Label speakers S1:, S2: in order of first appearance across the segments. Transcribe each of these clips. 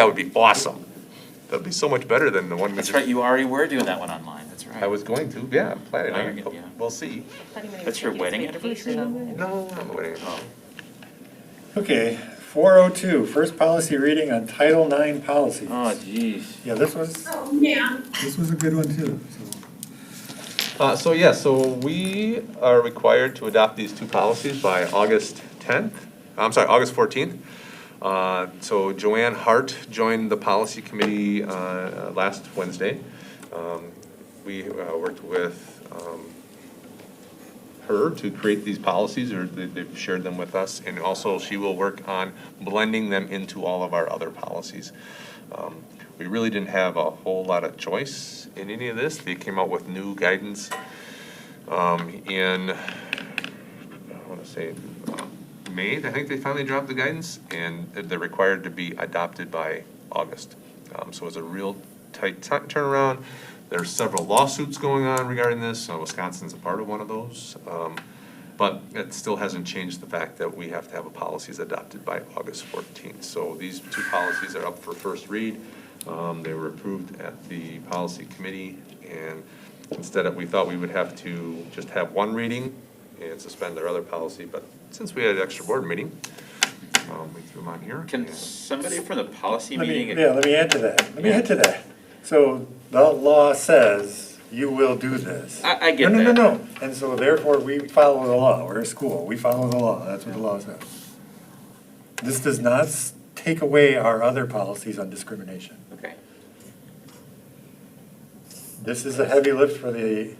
S1: That would be awesome. That'd be so much better than the one we
S2: That's
S1: just.
S2: right, you already were doing that one online, that's right.
S1: I was going to, yeah, I'm planning
S2: Now
S1: on
S2: you're
S1: it,
S2: gonna- yeah.
S1: but we'll see.
S2: That's your wedding anniversary?
S1: No, I'm waiting.
S2: Oh,
S3: Okay, 402, first policy reading on Title IX policies.
S2: Oh, jeez.
S3: Yeah, this was, this was a good one too, so.
S1: Uh, so yeah, so we are required to adopt these two policies by August tenth, I'm sorry, August fourteenth. Uh, so Joanne Hart joined the policy committee, uh, uh, last Wednesday. Um, we, uh, worked with, um, her to create these policies, or they- they've shared them with us, and also she will work on blending them into all of our other policies. Um, We really didn't have a whole lot of choice in any of this. They came out with new guidance um, in, I want to say, uh, May, I think they finally dropped the guidance, and they're required to be adopted by August. Um, So it's a real tight tu- turnaround. There's several lawsuits going on regarding this, so Wisconsin's a part of one of those. Um, But it still hasn't changed the fact that we have to have a policies adopted by August fourteenth. So these two policies are up for first read. Um, They were approved at the policy committee, and instead of, we thought we would have to just have one reading and suspend our other policy, but since we had an extra board meeting, um, we threw them on here.
S2: Can
S1: and-
S2: somebody from the policy
S3: Let me,
S2: meeting?
S3: yeah, let me add to that, let me add to that. So the law says you will do this.
S2: I- I get
S3: No, no,
S2: that.
S3: no, no, and so therefore we follow the law, we're a school, we follow the law, that's what the law says. This does not s- take away our other policies on discrimination.
S2: Okay.
S3: This is a heavy lift for the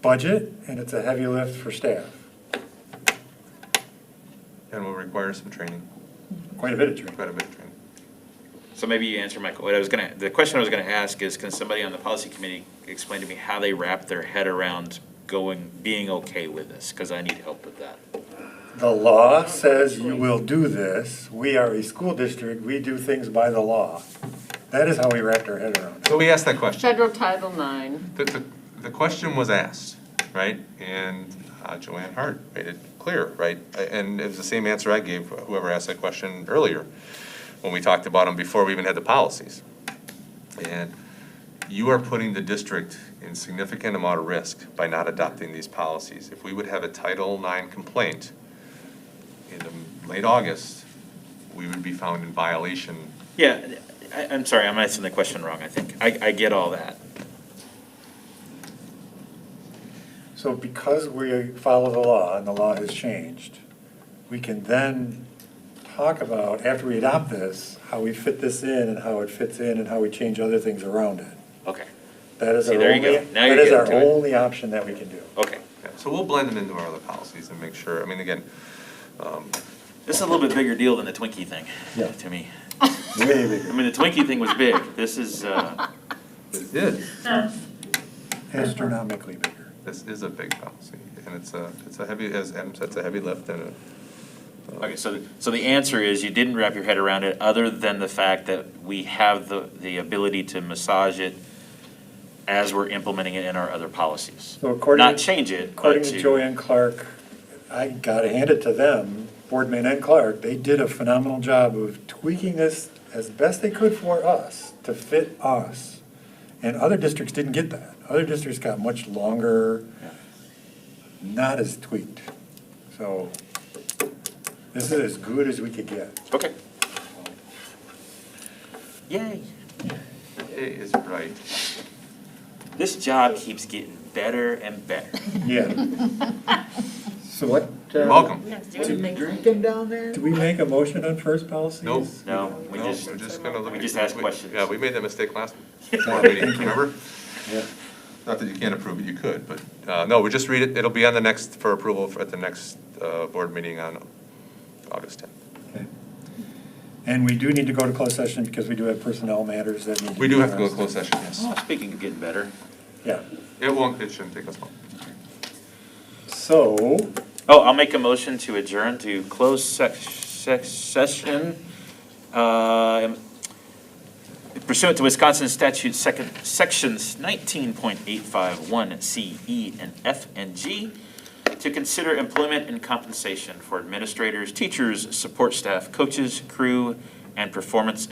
S3: budget, and it's a heavy lift for staff,
S1: And will require some training,
S3: quite a bit of training.
S1: quite a bit of training.
S2: So maybe you answer my, what I was gonna, the question I was gonna ask is, can somebody on the policy committee explain to me how they wrap their head around going, being okay with this? Because I need help with that.
S3: The law says you will do this, we are a school district, we do things by the law. That is how we wrapped our head around it.
S1: So we asked that question.
S4: Federal Title Nine.
S1: The, the, the question was asked, right? And uh, Joanne Hart made it clear, right? A- And it was the same answer I gave whoever asked that question earlier, when we talked about them before we even had the policies. And you are putting the district in significant amount of risk by not adopting these policies. If we would have a Title IX complaint in the late August, we would be found in violation.
S2: Yeah, I, I'm sorry, I'm asking the question wrong, I think. I, I get all that.
S3: So because we follow the law and the law has changed, we can then talk about, after we adopt this, how we fit this in and how it fits in and how we change other things around it.
S2: Okay,
S3: That is
S2: See,
S3: our
S2: there you
S3: only,
S2: go. Now you're
S3: that is our
S2: getting to it.
S3: only option that we can do.
S2: okay.
S1: Yeah, So we'll blend them into our other policies and make sure, I mean, again, um,
S2: This is a little bit bigger deal than the Twinkie thing,
S3: Yeah.
S2: to me.
S3: Way bigger.
S2: I mean, the Twinkie thing was big. This is, uh,
S1: this is
S3: astronomically bigger.
S1: This is a big policy, and it's a, it's a heavy, as Adam said, it's a uh, heavy lift and
S2: okay, so, so the answer is you didn't wrap your head around it, other than the fact that we have the, the ability to massage it as we're implementing it in our other policies.
S3: So according-
S2: Not change it, but
S3: According to
S2: to,
S3: Joanne Clark, I gotta hand it to them, Boardman and Clark, they did a phenomenal job of tweaking this as best they could for us, to fit us. And other districts didn't get that. Other districts got much longer, not as tweaked. So this is as good as we could get.
S2: okay. Yay.
S1: it is right.
S2: This job keeps getting better and better.
S3: Yeah. So what? uh,
S1: You're welcome.
S5: drinking down there?
S3: Do we make a motion on first policies?
S1: Nope.
S2: No, we
S1: No,
S2: just,
S1: we're just gonna look
S2: we
S1: at-
S2: just ask questions.
S1: Yeah, we made that mistake last
S3: Yeah,
S1: board meeting,
S3: thank you.
S1: remember?
S3: Yeah.
S1: Not that you can't approve it, you could, but, uh, no, we just read it, it'll be on the next, for approval at the next, uh, board meeting on August tenth.
S3: Okay. And we do need to go to closed session because we do have personnel matters that need to.
S1: We do have to go to
S3: addressed.
S1: closed session, yes.
S2: Oh, Speaking of getting better.
S3: Yeah,
S1: It won't, it shouldn't take us long.
S3: so,
S2: Oh, I'll make a motion to adjourn to close sec- sec- session uh, pursuant to Wisconsin statute second, sections nineteen point eight five one C, E, and F and G to consider employment and compensation for administrators, teachers, support staff, coaches, crew, and performance